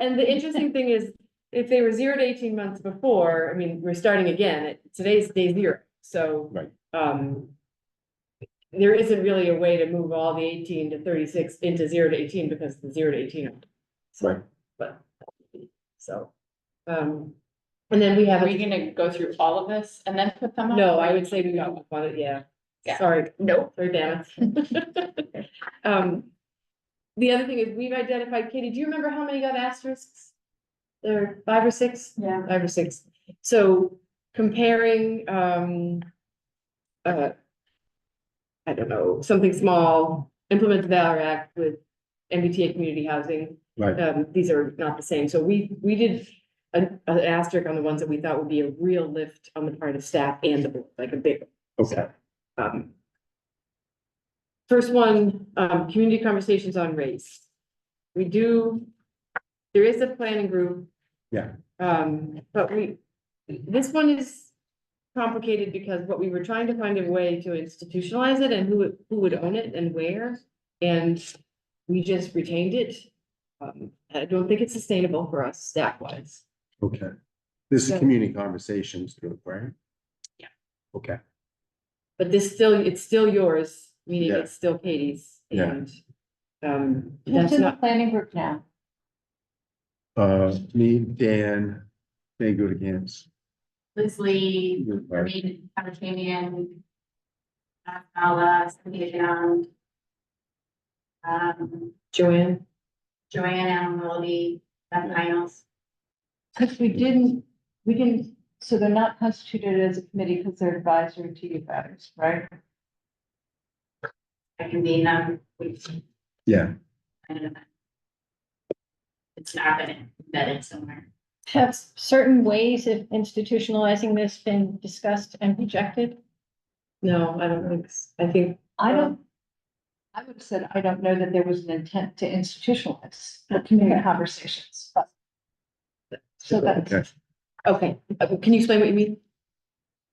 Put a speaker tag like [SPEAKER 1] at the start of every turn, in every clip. [SPEAKER 1] and the interesting thing is, if they were zero to eighteen months before, I mean, we're starting again, It- today's day zero, so.
[SPEAKER 2] Right.
[SPEAKER 1] Um. There isn't really a way to move all the eighteen to thirty-six into zero to eighteen because the zero to eighteen. are-
[SPEAKER 2] Right.
[SPEAKER 1] But, so, um, and then we have.
[SPEAKER 3] Are
[SPEAKER 1] a
[SPEAKER 3] we gonna go through all of this and then put them up?
[SPEAKER 1] No, I would say we got one, but yeah,
[SPEAKER 3] Yeah.
[SPEAKER 1] sorry,
[SPEAKER 3] Nope.
[SPEAKER 1] sorry, Dana. Um, the other thing is, we've identified, Katie, do you remember how many got asterisks? There are five or six,
[SPEAKER 3] Yeah.
[SPEAKER 1] five or six, so comparing, um. Uh. I don't know, something small, implement the Valor Act with MBTA community housing.
[SPEAKER 2] Right.
[SPEAKER 1] Um, these are not the same, so we, we did an, an asterisk on the ones that we thought would be a real lift on the part of staff and the board, like a big
[SPEAKER 2] Okay,
[SPEAKER 1] um. First one, um, community conversations on race. We do, there is a planning group.
[SPEAKER 2] Yeah.
[SPEAKER 1] Um, but we, this one is complicated because what we were trying to find a way to institutionalize it and who, would- who would own it and where. And we just retained it. Um, I don't think it's sustainable for us staff wise.
[SPEAKER 2] okay. This
[SPEAKER 1] So-
[SPEAKER 2] is community conversations group, right?
[SPEAKER 3] Yeah.
[SPEAKER 2] Okay,
[SPEAKER 1] But this still, it's still yours, meaning
[SPEAKER 2] Yeah.
[SPEAKER 1] it's still Katie's
[SPEAKER 2] Yeah.
[SPEAKER 1] and. Um,
[SPEAKER 3] Who's
[SPEAKER 1] that's
[SPEAKER 3] in the
[SPEAKER 1] not,
[SPEAKER 3] planning group now?
[SPEAKER 2] uh, me, Dan, they go to camps.
[SPEAKER 4] Leslie,
[SPEAKER 2] You're right.
[SPEAKER 4] Reed, Panatamian. Mala, Cynthia Young. Um,
[SPEAKER 1] Joanne,
[SPEAKER 4] Joanne Allen Willoughby, Beth Niles.
[SPEAKER 3] Cause we didn't, we didn't, so they're not constituted as a committee because they're advisory to you guys, right?
[SPEAKER 4] I can be them. We-
[SPEAKER 2] Yeah,
[SPEAKER 4] I don't know. It's not been embedded somewhere.
[SPEAKER 5] Have certain ways of institutionalizing this been discussed and rejected?
[SPEAKER 1] no, I don't think, s- I think,
[SPEAKER 3] I don't, I would have said, I don't know that there was an intent to institutionalize the community conversations, but. So that's.
[SPEAKER 2] okay,
[SPEAKER 1] okay, Uh, can you explain what you mean?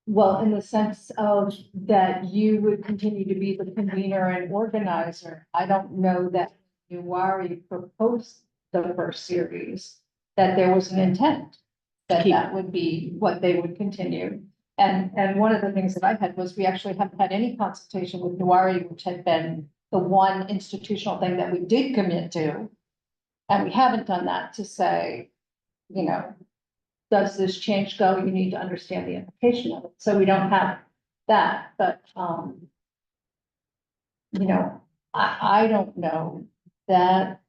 [SPEAKER 3] Well, in the sense of that you would continue to be the convener and organizer. I don't know that you already proposed the first series, that there was an intent. That
[SPEAKER 1] Keep.
[SPEAKER 3] that would be what they would continue. And, and one of the things that I had was we actually haven't had any consultation with Nuari, which had been the one institutional thing that we did commit to. And we haven't done that to say, you know, does this change go? You need to understand the implication of it. So we don't have that, but, um, you know, I, I don't know that,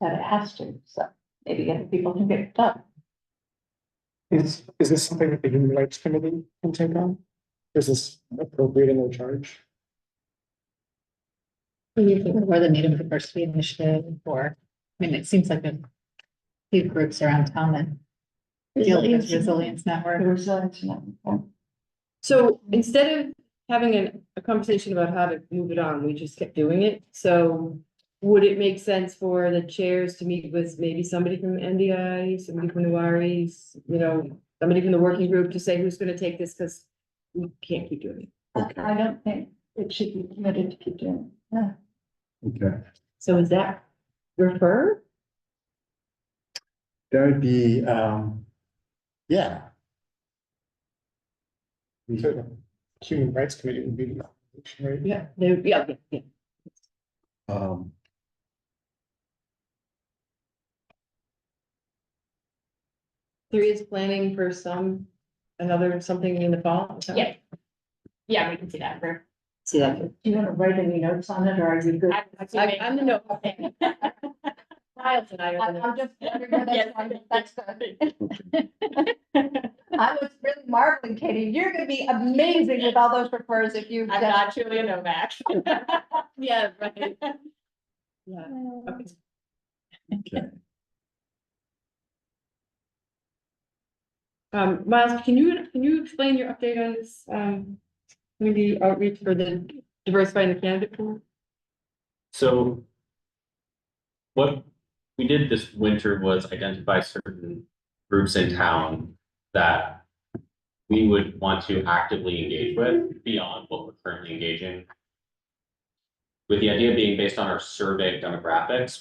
[SPEAKER 3] that it has to, so maybe other people can get it done.
[SPEAKER 6] Is, is this something that the human rights committee can take on? Is this appropriate in their charge?
[SPEAKER 7] Or the Native Diversity Initiative, or, I mean, it seems like a few groups around town that deal with this resilience network.
[SPEAKER 3] There's a, you uh, know,
[SPEAKER 1] So instead of having a, a conversation about how to move it on, we just kept doing it, so. Would it make sense for the chairs to meet with maybe somebody from NDI, somebody from Nuwari, s- you know, somebody from the working group to say who's gonna take this, cause. We can't keep doing it,
[SPEAKER 3] I
[SPEAKER 2] okay,
[SPEAKER 3] I don't think it should be committed to keep doing. it. No.
[SPEAKER 2] okay.
[SPEAKER 1] so is that refer?
[SPEAKER 2] That would be, um, yeah. We
[SPEAKER 6] So Human rights committee would be, the right?
[SPEAKER 1] Yeah. They, yeah, yeah, yeah.
[SPEAKER 2] Um.
[SPEAKER 1] There is planning for some, another something in the fall? is that-
[SPEAKER 4] Yeah. Yeah, we can see that for.
[SPEAKER 1] See that?
[SPEAKER 3] Do you want to write any notes on it, or are you good?
[SPEAKER 4] I'm
[SPEAKER 1] I, I'm the no.
[SPEAKER 4] assuming-
[SPEAKER 1] Miles and I are the no.
[SPEAKER 3] I'm just wondering, that's fine, that's good. I was really marveling, Katie, you're gonna be amazing with all those refers if you.
[SPEAKER 4] I'm not Julia Novak.
[SPEAKER 1] Yeah, right. Yeah, okay.
[SPEAKER 2] Okay.
[SPEAKER 1] Um, Miles, can you, can you explain your update on this, um, community outreach for the diversifying the candidate pool?
[SPEAKER 8] So what we did this winter was identify certain groups in town that we would want to actively engage with beyond what we're currently engaging. With the idea being based on our survey demographics,